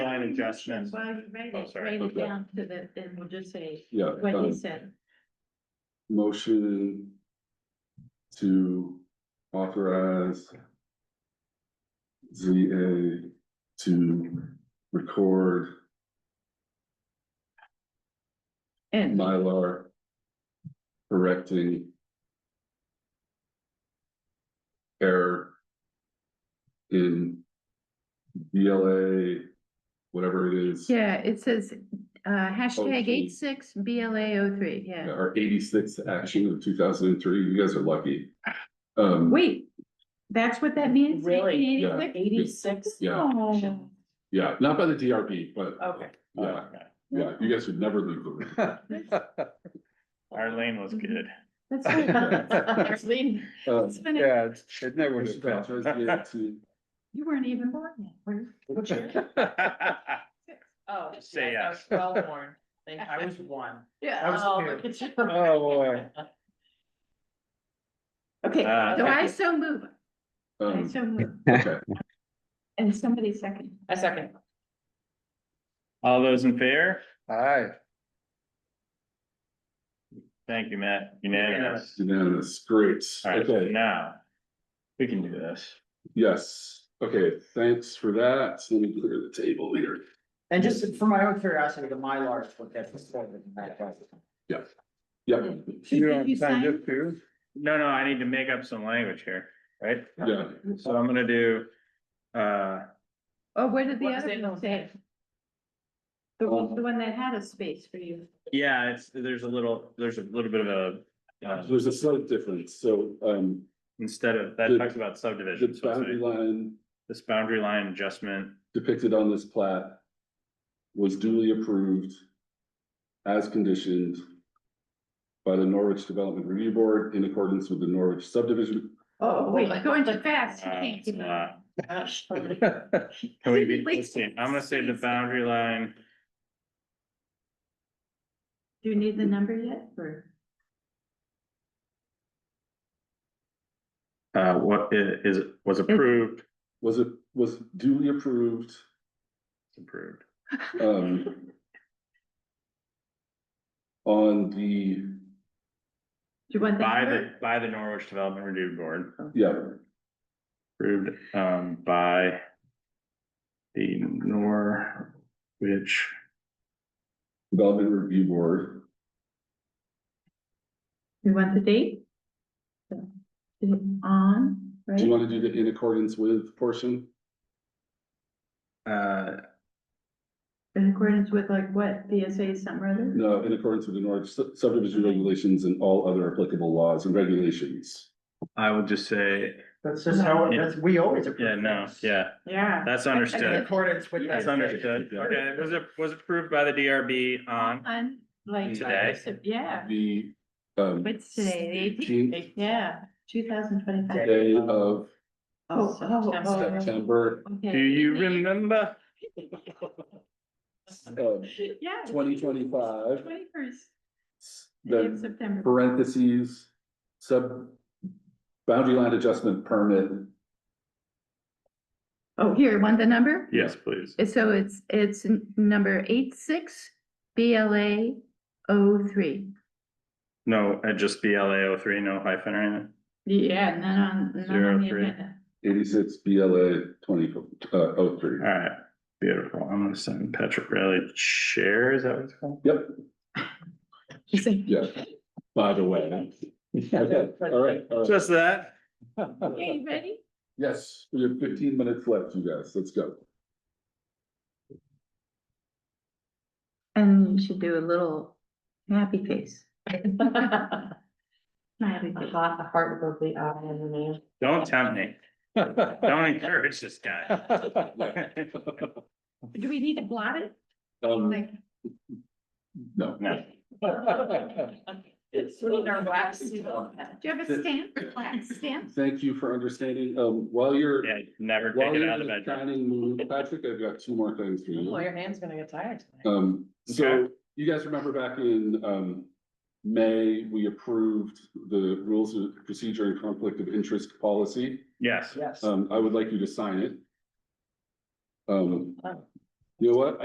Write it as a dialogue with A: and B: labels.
A: congestion.
B: Well, you write
A: Oh,
B: it,
A: sorry.
B: write it
C: Okay.
B: down to the, then we'll just say
C: Yeah.
B: what
C: uh,
B: he said.
C: Motion to authorize ZA to record
B: And
C: Mylar correcting error in BLA, whatever it is,
B: yeah, it says uh hashtag
C: Okay.
B: eight six B L A O three, yeah.
C: our eighty-sixth action of two thousand and three. You guys are lucky. Um,
B: Wait, that's what that means?
D: Really?
B: 1986?
D: Eighty-six.
C: yeah,
B: Oh,
C: yeah, not by the DRB, but
D: Okay.
A: Oh,
C: yeah, yeah, you guys would never leave the room.
A: Arlene was good.
B: That's right. There's Lee.
C: Uh,
B: Mm-hmm. It's been a-
E: Yeah, it's- it never would
C: motion
E: have
C: to authorize VA to
B: You weren't even born yet. were
E: passed.
A: Uh,
D: Oh.
A: Just say
D: yeah, I was
A: yes.
D: Well born, Then I was one.
B: you? Yeah.
E: was
D: Oh,
E: two.
D: look at you.
E: Oh, boy.
B: Okay,
A: Uh,
B: so I
A: okay.
B: so move, I
C: Um,
B: so move,
C: okay,
B: and somebody second.
D: A second.
A: All those in favor?
E: Aye.
A: Thank you, Matt. Unanimous.
C: unanimous, great,
A: All right, so
C: okay,
A: now, we can do this.
C: yes, okay, thanks for that, so let me clear the table here.
D: And just for my own curiosity, the Mylar is what that's.
C: Yeah,
E: You
B: Did you
E: don't sign
B: sign?
E: this too?
A: No, no, I need to make up some language here, right?
C: yeah,
A: So I'm gonna do, uh,
B: Oh, what did the
D: What does
B: other
D: it
B: one
D: look
B: say? The one, the one that had a space for you.
A: yeah, it's, there's a little, there's a little bit of a, uh,
C: there's a slight difference, so, um,
A: instead of, that
C: The-
A: talks about subdivision.
C: the
A: so it's
C: boundary
A: a-
C: line
A: This boundary line adjustment,
C: depicted on this plat was duly approved as conditioned by the Norwich Development Review Board in accordance with the Norwich subdivision
B: Oh, wait, you're going too fast. You
A: uh,
B: can't
A: it's
B: keep
A: a
B: up.
A: lot. Can we be,
B: Wait.
A: let's see, I'm gonna say the boundary line,
B: Do you need the number yet or?
A: uh, what i- is, was approved,
C: was it, was duly approved,
A: approved.
C: um, on the,
B: Do you want the
A: By the,
B: number?
A: by the Norwich Development Review Board,
C: yeah,
A: approved, um, by the Norwich
C: Development Review Board,
B: You want the date? So, is it On,
C: do you
B: right?
C: want to do the in accordance with portion?
A: Uh,
B: In accordance with like what, BSA something or other?
C: No, in accordance with the Norwich sub- subdivision regulations and all other applicable laws and regulations.
A: I would just say,
D: That's just how,
A: Yeah.
D: that's, we always. approve
A: yeah, no,
D: things.
A: yeah,
B: Yeah.
A: that's
D: In
A: understood.
D: accordance with.
A: That's
D: that.
A: understood. Okay, it was, a- was approved by the DRB on,
B: On, like.
A: Today?
B: so- Yeah,
C: The, um.
B: What's today, the
C: 18th
D: Eight-
B: yeah, two thousand twenty-five.
C: Day of
B: Oh, oh, oh,
C: September,
A: do
B: okay.
A: you remember?
C: um,
B: Yeah.
C: twenty twenty-five,
B: Twenty-first day of
C: the
B: September.
C: parentheses, sub, boundary line adjustment permit
B: Oh, here, want the number?
A: Yes, please.
B: So it's, it's n- number eight six B L A O three.
A: No, uh, just BLA 03, no hyphen or anything.
B: Yeah, none on, none
A: Zero
B: on the
A: three.
B: agenda.
C: eighty-six BLA twenty, uh, oh three.
A: All right, beautiful. I'm gonna send Patrick Riley chair, is that what it's called?
C: Yep,
B: She's like,
C: yeah, by the way. Okay, all right, all right.
A: Just that.
B: okay, you ready?
C: Yes, we have fifteen minutes left, you guys, let's go.
B: And you should do a little happy face. Smiley face.
D: Hot, heart, lovely, eye, and the man.
A: Don't tempt me. Don't encourage this guy.
B: Do we need to blot it?
C: Um,
B: Like,
C: no,
A: No,
D: It's really nerve wracking.
B: do you have a stamp, black stamp?
C: thank you for understanding, um, while you're,
A: yeah, never
C: while
A: take it
C: you're
A: out
C: in
A: of the
C: the
A: bedroom.
C: dining mood, Patrick, I've got two more things for you.
D: Well, your hand's gonna get tired. tonight.
C: Um, so
A: Okay.
C: you guys remember back in, um, May, we approved the rules of procedure and conflict of interest policy.
A: Yes.
D: Yes.
B: Oh.
C: Um, I would like you to sign it. Um, you know what?